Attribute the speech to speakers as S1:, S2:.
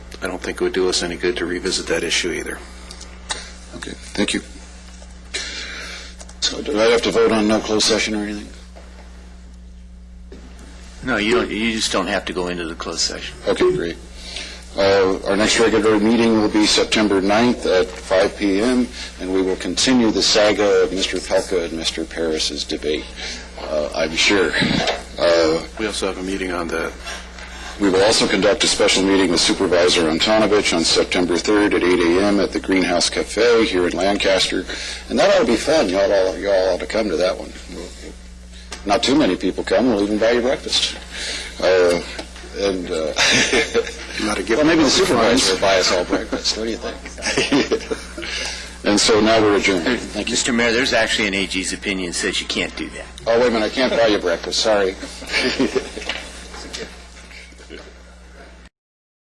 S1: I don't think it would do us any good to revisit that issue either.
S2: Okay, thank you. So do I have to vote on no closed session or anything?
S3: No, you don't, you just don't have to go into the closed session.
S2: Okay, great. Uh, Our next regular meeting will be September 9th at 5 PM, and we will continue the saga of Mr. Pelka and Mr. Paris's debate, uh, I'm sure. Uh,
S1: We also have a meeting on the,
S2: We will also conduct a special meeting with Supervisor Antonovich on September 3rd at 8 AM at the Greenhouse Cafe here in Lancaster, and that ought to be fun. Y'all, all- y'all ought to come to that one. Not too many people come, we'll even buy you breakfast. Uh, And, uh,
S1: not a given.
S2: well, maybe the supervisor will buy us all breakfast, what do you think? And so now we're adjourned. Thank you.
S3: Mr. Mayor, there's actually an AG's opinion that says you can't do that.
S2: Oh, wait a minute, I can't buy you breakfast, sorry.